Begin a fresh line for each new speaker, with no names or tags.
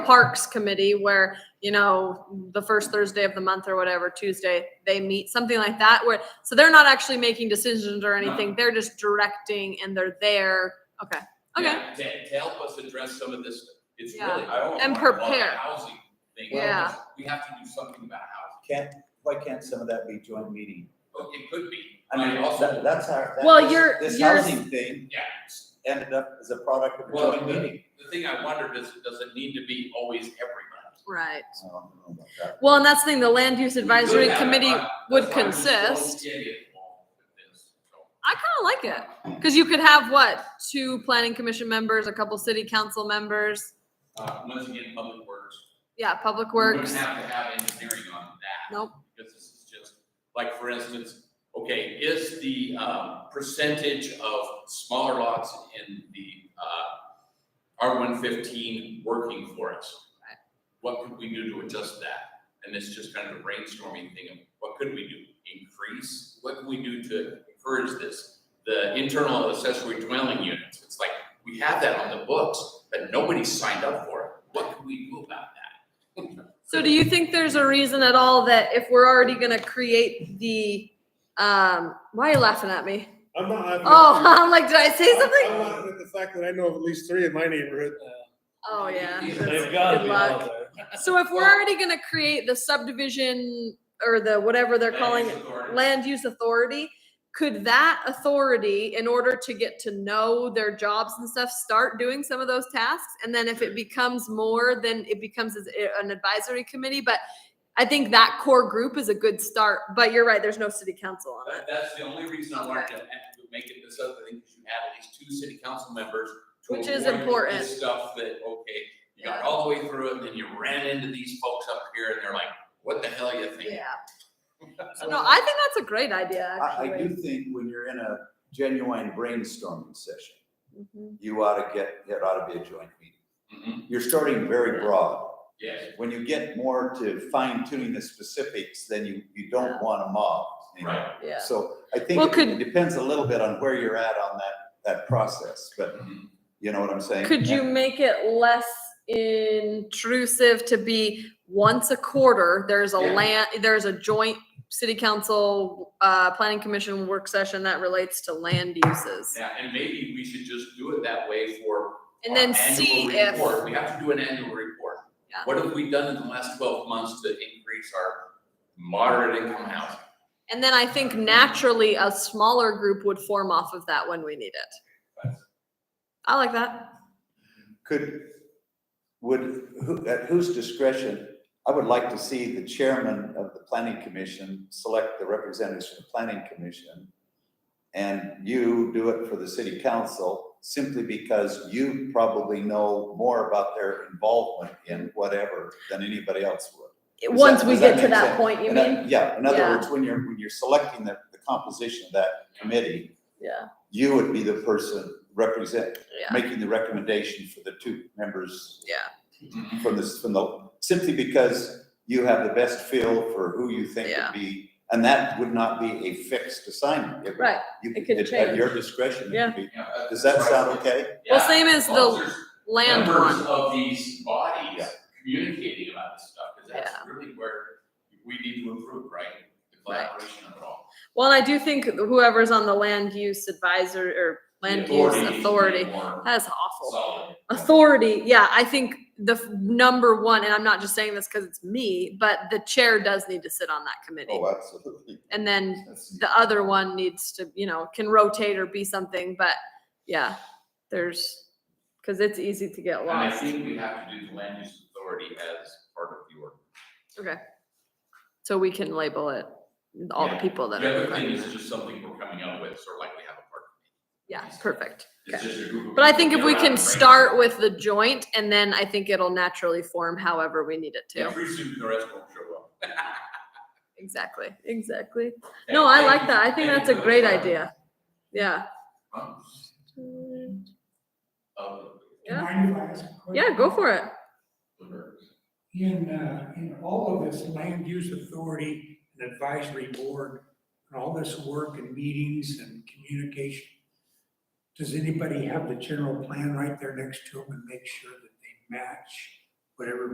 Parks Committee where, you know, the first Thursday of the month or whatever, Tuesday, they meet, something like that, where, so they're not actually making decisions or anything, they're just directing and they're there, okay, okay,
Yeah, To, to help us address some of this, it's
Yeah.
really, I don't want
And
to call it a
prepare.
housing thing.
Yeah.
We have to do something about housing.
Can't, why can't some of that be joint meeting?
Oh, It could be.
I mean,
but
that,
also,
that's our, that
Well,
was-
you're-
this
you're-
housing thing
yeah.
ended up as a product of a
Well,
joint
the,
meeting.
the thing I wondered is, does it need to be always everybody?
right.
So, I don't know about that.
Well, and that's the thing, the Land Use
We
Advisory
could have it,
Committee,
but
would
that's why I'm just
consist.
so idiot involved with this, so.
I kinda like it, cause you could have what, two planning commission members, a couple city council members,
Uh, once again, Public Works.
yeah, Public
We wouldn't
Works,
have to have engineering on that.
Nope.
Because this is just, like, for instance, okay, is the, um, percentage of smaller lots in the, uh, R one fifteen working for us?
Right.
What could we do to adjust that? And it's just kind of a brainstorming thing of what could we do? Increase? What can we do to encourage this? The internal accessory dwelling units, it's like, we have that on the books, but nobody signed up for it. What can we do about that?
So do you think there's a reason at all that if we're already gonna create the, um, why are you laughing at me?
I'm not. happy with-
Oh, I'm like, did I say something?
I'm not happy with the fact that I know of at least three in my neighborhood.
Oh, yeah.
They've
That's-
They've got to
good
be
luck.
out there.
So if we're already gonna create the subdivision or the, whatever they're calling it, land use authority, could that authority, in order to get to know their jobs and stuff, start doing some of those tasks? And then if it becomes more, then it becomes as- eh, an advisory committee, but I think that core group is a good start, but you're right, there's no city council on it.
That, that's the only reason I wanted to add- to make it this other thing, because you had at least two city council members to
Which is
avoid
important.
This stuff that, okay, you got all the way through it, and then you ran into these folks up here, and they're like, what the hell are you thinking?
Yeah. So no, I think that's a great idea,
I, I
actually.
do think when you're in a genuine brainstorming session,
Mhm.
you ought to get, it ought to be a joint meeting.
Mhm,
You're starting very broad.
Yes,
When you get more to fine tuning the specifics, then you, you don't want a mob. you know?
right.
Yeah.
So I
Well,
think
could-
it- it depends a little bit on where you're at on that, that process, but
Mhm.
you know what I'm saying?
Could you make it less intrusive to be once a quarter, there's a
Yeah.
land, there's a joint city council, uh, planning commission work session that relates to land uses?
Yeah, and maybe we should just do it that way for.
And
our
then
annual
see if,
report. We have to do an annual report.
Yeah.
What have we done in the last twelve months to increase our moderate income housing?
and then I think naturally a smaller group would form off of that when we need it.
That's-
I like that.
Could, would, who, at whose discretion, I would like to see the chairman of the planning commission select the representatives for the planning commission. And you do it for the city council simply because you probably know more about their involvement in whatever than anybody else would. that-
Once we
does that
get to
make
that
sense?
point, you
And I-
mean?
Yeah, in other
Yeah.
words, when you're, when you're selecting the, the composition of that committee,
Yeah,
you would be the person represent,
yeah,
making the recommendation for the two members
yeah.
Mhm.
from this, from the, simply because you have the best feel for who you think
Yeah.
would be, and that would not be a fixed assignment. It would-
Right.
you
it could
at- At
change.
your discretion. it
Yeah.
could be.
Yeah, uh,
Does that
that's
sound
right.
okay?
Well,
Yeah,
same as
well,
the
there's
land
members
one.
Of these bodies
Yeah.
communicating about this stuff, because that's really where we need to improve, right? The
Right.
collaboration of it all.
Well, and I do think whoever's on the land use advisor or
The
land use
authority needs to be
authority,
more
that's awful.
Solid.
Authority, yeah, I think the f- number one, and I'm not just saying this because it's me, but the chair does need to sit on that committee.
Oh, absolutely.
And then
That's-
the other one needs to, you know, can rotate or be something, but yeah, there's, because it's easy to get
And I
lost.
think we have to do the land use authority as part of the ordinance.
So we can label it, all the
Yeah.
people that
The
are.
other thing is just something we're coming up with, sort of like we have a part.
Yeah, perfect.
It's just a group of
But I
people
think if
get
we
around
can
and brainstorm.
start with the joint and then I think it'll naturally form however we need it
Yeah,
to.
pretty soon the rest won't show up.
Exactly, exactly. No, I like that. I think that's a great idea. Yeah.
Can I do ask a question?
Yeah, go for it.
In, uh, in all of this land use authority and advisory board, and all this work and meetings and communication, does anybody have the general plan right there next to them and make sure that they match whatever